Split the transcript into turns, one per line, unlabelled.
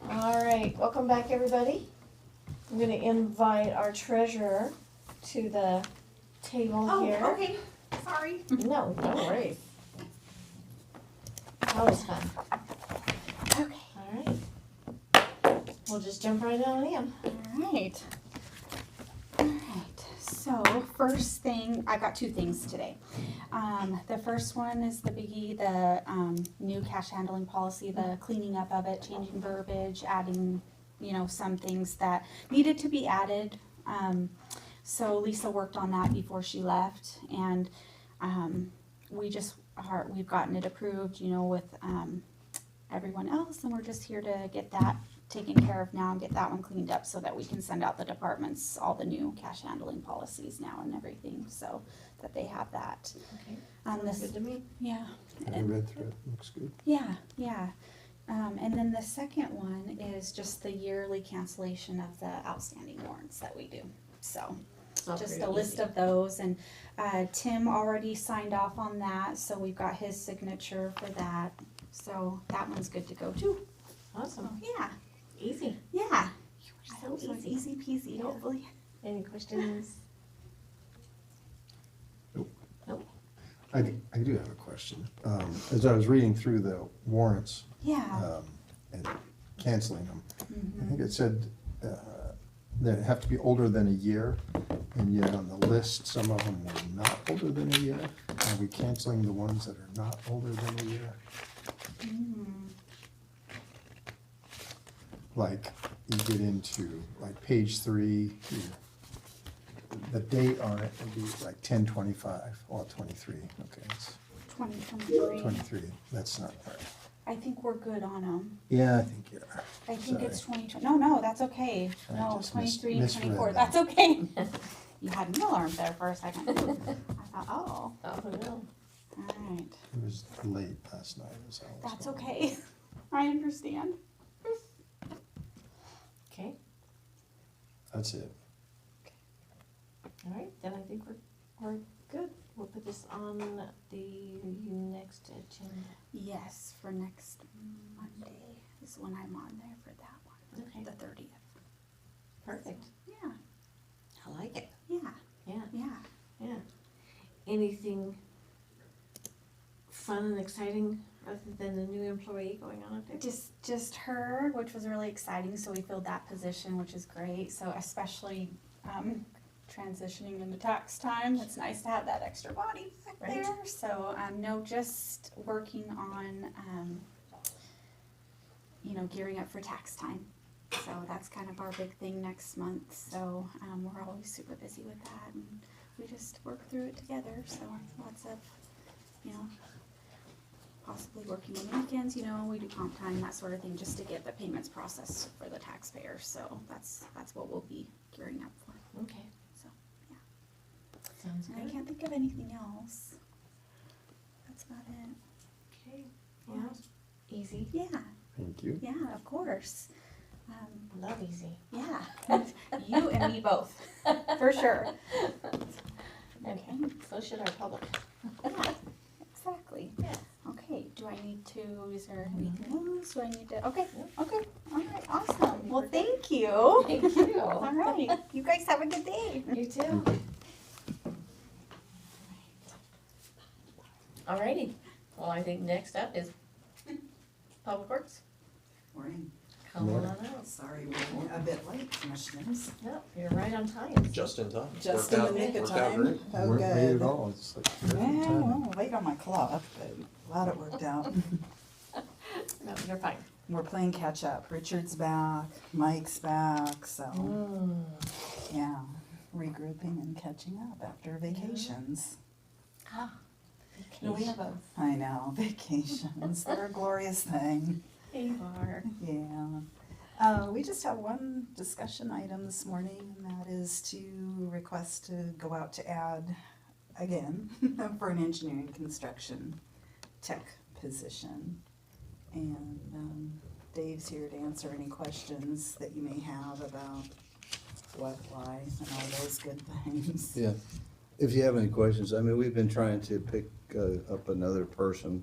right, welcome back, everybody. I'm gonna invite our treasurer to the table
Oh,
here.
okay, sorry.
No, no worries. Always fun.
Okay.
All right. We'll just jump right on in.
Alright. Alright, so first thing, I've got two things today. Um, the first one is the biggie, the, um, new cash handling policy, the cleaning up of it, changing verbiage, adding, you know, some things that needed to be added. Um, so Lisa worked on that before she left and, um, we just are, we've gotten it approved, you know, with, um, everyone else and we're just here to get that taken care of now and get that one cleaned up so that we can send out the departments all the new cash handling policies now and everything, so that they have that.
Okay.
Um, this,
Good to me.
yeah,
I read through it, looks good.
yeah, yeah. Um, and then the second one is just the yearly cancellation of the outstanding warrants that we do, so.
Not
just
very
a list
Oh, easy.
of those, and, uh, Tim already signed off on that, so we've got his signature for that. So that one's good to go too,
Awesome,
yeah,
easy.
yeah.
Oh. so
I hope it's
easy.
Easy peasy,
Yeah.
hopefully.
Any questions?
I, d- I do have a question. Um, as I was reading through the warrants,
Yeah.
um, and canceling them, I
Mhm.
think it said, uh, that it have to be older than a year, and yet on the list, some of them were not older than a year. Are we canceling the ones that are not older than a year?
Mm.
Like, you get into, like, page three, you- the date on it would be like ten twenty-five, or twenty-three, okay, it's
2023.
twenty-three, that's not right.
I think we're good on them.
Yeah, I think you are.
I think it's 2020. No, no, that's okay.
I
No,
just mis-
23,
misread
24.
that.
That's okay. you had an alarm there for a second. I thought, oh,
Oh, no.
all right.
It was late last night, it was all.
That's okay. I understand.
Okay,
That's it.
all right, then I think we're, we're good. We'll put this on the next agenda.
Yes, for next Monday is when I'm on there for that one,
Okay,
the 30th.
perfect.
Yeah,
I like it.
yeah,
Yeah,
yeah.
yeah. Anything fun and exciting other than the new employee going on up there?
Just just her, which was really exciting. So we filled that position, which is great. So especially um, transitioning into tax time, it's nice to have that extra body back
Right.
there. So um, no, just working on um, you know gearing up for tax time. So that's kind of our big thing next month. So um, we're always super busy with that, and we just work through it together. So lots of you know possibly working on weekends, you know, we do comp time, that sort of thing, just to get the payments processed for the taxpayer, so that's, that's what we'll be gearing up for.
Okay.
So, yeah.
Sounds
And I
good.
can't think of anything else. That's about it.
Okay, yeah, easy.
Yeah,
Thank you.
yeah, of course. Um,
Love easy.
yeah, you and me both, for sure.
And
Okay,
so should our public.
yeah, exactly.
Yeah.
Okay, do I need to, is there anything else, do I need to, okay, okay, alright,
I
awesome,
think we're
well,
good.
thank you.
Thank you.
All right. You guys have a good day.
You too. Alrighty, well, I think next up is Public Works.
Morning,
Come on
Morning.
out.
sorry we're a bit late, commissioners.
Yep, you're right on time.
Just in time.
Just
Worked
in the
out-
nick of
worked out
time.
great.
Oh,
Weren't late at
good.
all, it's like. perfect timing.
Well, late on my clock, but glad it worked out.
No, you're fine.
We're playing catch up. Richard's back, Mike's back, so,
Mm.
yeah, regrouping and catching up after vacations. Ah,
No, we have
a. I know, vacations, they're a glorious thing.
bar.
Yeah. Uh, we just have one discussion item this morning, and that is to request to go out to add again for an engineering construction tech position. And, um, Dave's here to answer any questions that you may have about what, why, and all those good things.
Yeah, if you have any questions, I mean, we've been trying to pick uh, up another person